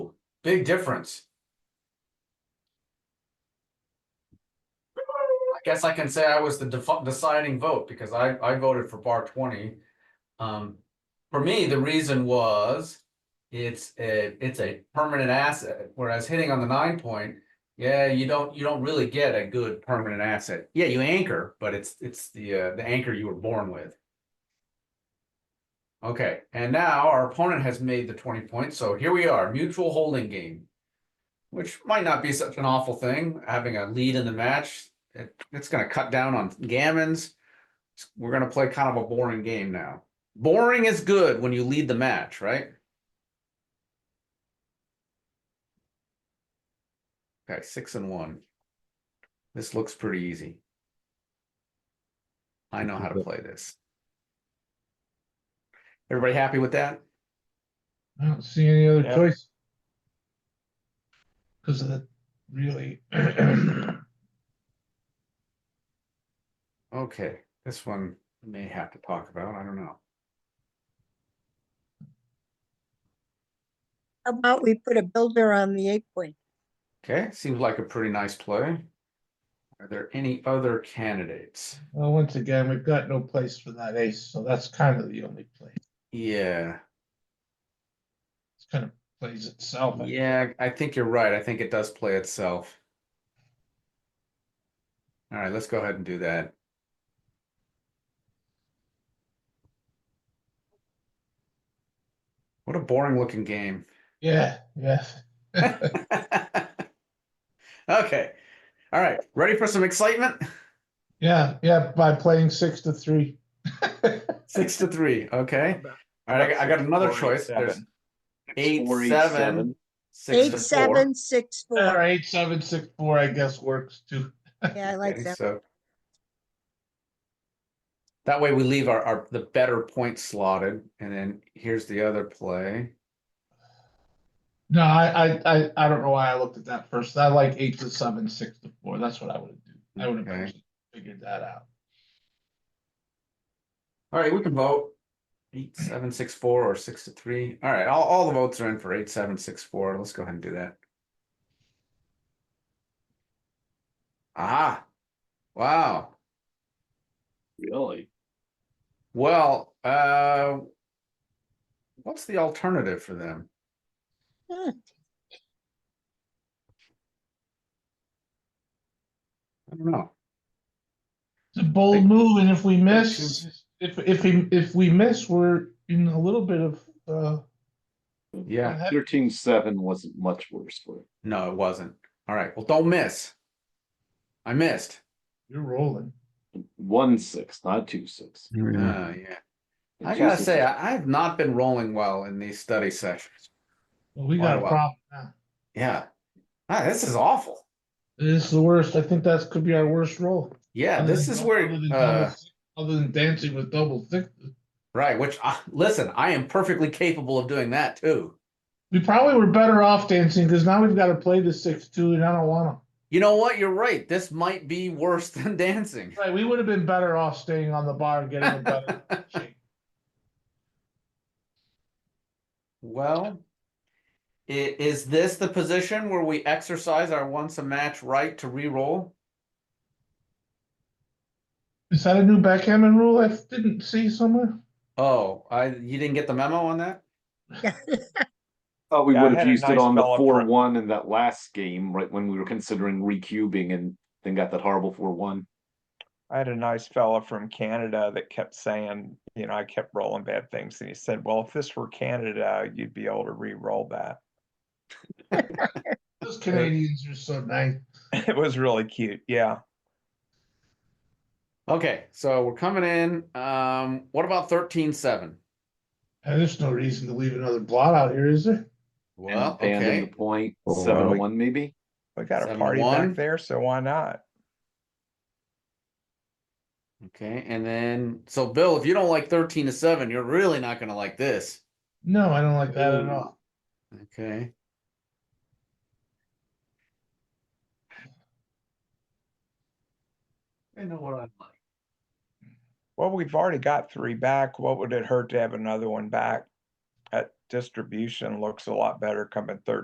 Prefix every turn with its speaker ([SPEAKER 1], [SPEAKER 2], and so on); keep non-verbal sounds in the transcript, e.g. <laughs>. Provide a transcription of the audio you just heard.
[SPEAKER 1] Big difference. I guess I can say I was the defu- deciding vote because I, I voted for bar twenty. Um, for me, the reason was it's a, it's a permanent asset, whereas hitting on the nine point, yeah, you don't, you don't really get a good permanent asset. Yeah, you anchor, but it's, it's the, uh, the anchor you were born with. Okay, and now our opponent has made the twenty points, so here we are, mutual holding game. Which might not be such an awful thing, having a lead in the match, it, it's gonna cut down on gammons. We're gonna play kind of a boring game now. Boring is good when you lead the match, right? Okay, six and one. This looks pretty easy. I know how to play this. Everybody happy with that?
[SPEAKER 2] I don't see any other
[SPEAKER 3] Yeah.
[SPEAKER 2] choice. Cause of the, really. <clears throat>
[SPEAKER 1] Okay, this one we may have to talk about, I don't know.
[SPEAKER 4] How about we put a builder on the eight point?
[SPEAKER 1] Okay, seems like a pretty nice play. Are there any other candidates?
[SPEAKER 2] Well, once again, we've got no place for that ace, so that's kind of the only play.
[SPEAKER 1] Yeah,
[SPEAKER 2] It's kind of plays itself. I-
[SPEAKER 1] yeah, I think you're right. I think it does play itself. All right, let's go ahead and do that. What a boring looking game. <laughs>
[SPEAKER 2] Yeah, yeah.
[SPEAKER 1] Okay, all right, ready for some excitement?
[SPEAKER 2] Yeah, yeah, by playing six
[SPEAKER 1] <laughs>
[SPEAKER 2] to three.
[SPEAKER 1] Six to three, okay. All right, I got- I got another choice. There's eight,
[SPEAKER 3] Four, eight,
[SPEAKER 1] seven, six
[SPEAKER 4] Eight,
[SPEAKER 1] to
[SPEAKER 4] seven, six,
[SPEAKER 2] Or <laughs>
[SPEAKER 4] four.
[SPEAKER 2] eight, seven, six, four, I guess works too.
[SPEAKER 4] Yeah, I
[SPEAKER 1] four.
[SPEAKER 4] like
[SPEAKER 1] Okay,
[SPEAKER 4] that.
[SPEAKER 1] so That way we leave our, our, the better point slotted, and then here's the other play.
[SPEAKER 2] No, I, I, I, I don't know why I looked at that first. I like eight to seven, six to four. That's what I would do. I would have
[SPEAKER 1] Okay.
[SPEAKER 2] actually figured that out.
[SPEAKER 1] All right, we can vote. Eight, seven, six, four, or six to three. All right, all, all the votes are in for eight, seven, six, four. Let's go ahead and do that. Aha. Wow.
[SPEAKER 3] Really?
[SPEAKER 1] Well, uh, what's the alternative for them?
[SPEAKER 4] Hmm.
[SPEAKER 1] I don't know.
[SPEAKER 2] It's a bold move, and if we miss,
[SPEAKER 1] seems-
[SPEAKER 2] if, if, we- if we miss, we're in a little bit of, uh.
[SPEAKER 1] Yeah.
[SPEAKER 2] ahead.
[SPEAKER 3] Thirteen seven wasn't much worse for it.
[SPEAKER 1] No, it wasn't. All right. Well, don't miss. I missed.
[SPEAKER 2] You're rolling.
[SPEAKER 3] One six, not two six.
[SPEAKER 1] Uh, yeah. I gotta say, I, I have not been rolling well in these study sessions.
[SPEAKER 2] Well, we got a
[SPEAKER 1] Oh, Wow.
[SPEAKER 2] problem now.
[SPEAKER 1] Yeah. Ah, this is awful.
[SPEAKER 2] This is the worst. I think that could be our worst roll.
[SPEAKER 1] Yeah,
[SPEAKER 2] Other
[SPEAKER 1] this
[SPEAKER 2] than-
[SPEAKER 1] is where,
[SPEAKER 2] other than double
[SPEAKER 1] uh,
[SPEAKER 2] six- Other than dancing with double six,
[SPEAKER 1] right, which, I listen, I am perfectly capable of doing that too.
[SPEAKER 2] we probably were better off dancing, because now we've got to play the six two, and I don't wanna.
[SPEAKER 1] You know what? You're right. This might be worse <laughs> than dancing.
[SPEAKER 2] Right, we would have been better off staying on the bar and getting a
[SPEAKER 1] <laughs>
[SPEAKER 2] better. shake.
[SPEAKER 1] Well, i- is this the position where we exercise our once a match right to re-roll?
[SPEAKER 2] Is that a new backgammon rule I didn't see somewhere?
[SPEAKER 1] Oh, I, you didn't get the memo on that?
[SPEAKER 3] Thought we
[SPEAKER 5] Yeah, I
[SPEAKER 3] would have
[SPEAKER 5] had a
[SPEAKER 3] used it
[SPEAKER 5] nice
[SPEAKER 3] on the
[SPEAKER 5] bell up
[SPEAKER 3] four
[SPEAKER 5] front.
[SPEAKER 3] one in that last game, right, when we were considering recubing and then got that horrible four one.
[SPEAKER 5] I had a nice fella from Canada that kept saying, you know, I kept rolling bad things. And he said, well, if this were Canada, you'd be able to re roll that. <laughs>
[SPEAKER 2] Those Canadians are so nice.
[SPEAKER 5] it was really cute. Yeah.
[SPEAKER 1] Okay, so we're coming in. Um, what about thirteen seven?
[SPEAKER 2] And there's no reason to leave another blot out here, is there?
[SPEAKER 3] And
[SPEAKER 1] Well,
[SPEAKER 3] abandoned
[SPEAKER 1] okay,
[SPEAKER 3] the point,
[SPEAKER 5] Oh, wow.
[SPEAKER 3] seven one maybe?
[SPEAKER 5] We got a
[SPEAKER 1] Seven
[SPEAKER 5] party
[SPEAKER 1] one.
[SPEAKER 5] back there. So why not?
[SPEAKER 1] okay, and then, so Bill, if you don't like thirteen to seven, you're really not gonna like this.
[SPEAKER 2] No, I don't like that at
[SPEAKER 3] Ooh.
[SPEAKER 2] all.
[SPEAKER 1] Okay. I know what I like.
[SPEAKER 5] Well, we've already got three back. What would it hurt to have another one back? That distribution looks a lot better coming third.